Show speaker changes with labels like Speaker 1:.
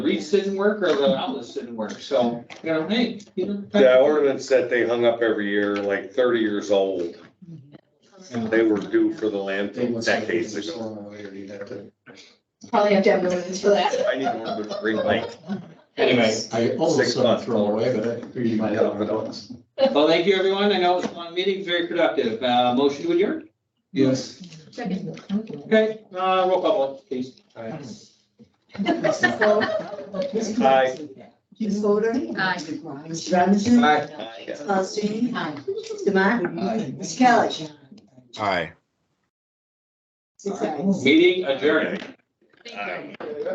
Speaker 1: Reeds didn't work or the outlets didn't work, so, you know, hey, you know.
Speaker 2: The ornaments that they hung up every year, like thirty years old, they were due for the landfill decades ago.
Speaker 3: Probably have to have room for that.
Speaker 2: I need one with green light.
Speaker 4: Anyway, I
Speaker 2: Six
Speaker 4: almost saw
Speaker 2: months.
Speaker 4: it thrown away, but I figured you might have it on.
Speaker 1: Well, thank you, everyone. I know it's a long meeting, very productive. Uh, motion to adjourn?
Speaker 4: Yes.
Speaker 3: Second.
Speaker 1: Okay, uh, roll call, vote, please.
Speaker 3: Mrs. Flo,
Speaker 2: Hi.
Speaker 5: Ms. Fodor.
Speaker 3: Aye.
Speaker 5: Mr. Robinson.
Speaker 1: Aye.
Speaker 5: Mr. Paulson. Mr. Martin.
Speaker 4: Aye.
Speaker 5: Mr. Kelly.
Speaker 6: Aye.
Speaker 5: Six ayes.
Speaker 1: Meeting adjourned.
Speaker 3: Thank you.